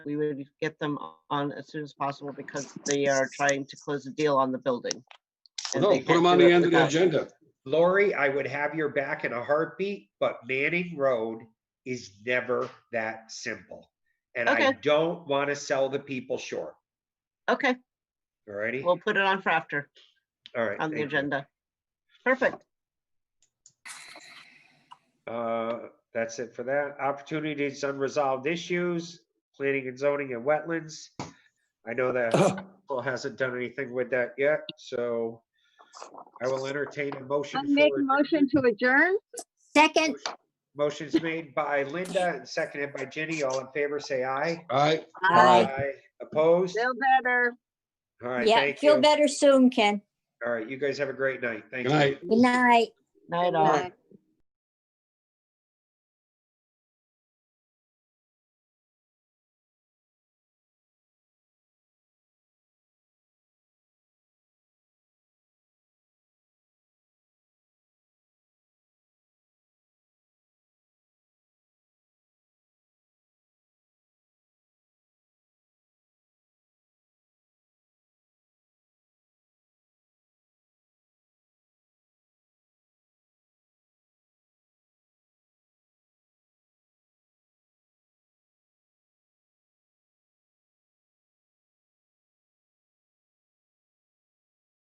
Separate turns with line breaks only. we would get them on as soon as possible because they are trying to close a deal on the building. and
No,
they
Oh, put
can't
them on
do
the
it
end of the
without-
agenda.
Lori, I would have your back in a heartbeat, but Manning Road is never that simple. And I
Okay.
don't want to sell the people short.
Okay,
All righty?
we'll put it on for after,
All right.
on the
thank you.
agenda. Perfect.
Uh, That's it for that. Opportunities, unresolved issues, planning and zoning and wetlands. I know that Paul hasn't done anything with that yet, so I will entertain a motion.
I make
for
a
adjourn-
motion to adjourn?
Second,
Motion's made by Linda and seconded by Jenny. All in favor, say aye.
All right,
Aye.
Opposed?
Feel better.
All right,
yeah,
thank
feel
you.
better soon, Ken.
All right, you guys have a great night. Thank
good
you.
night.
Good night.
Night all.
Bye.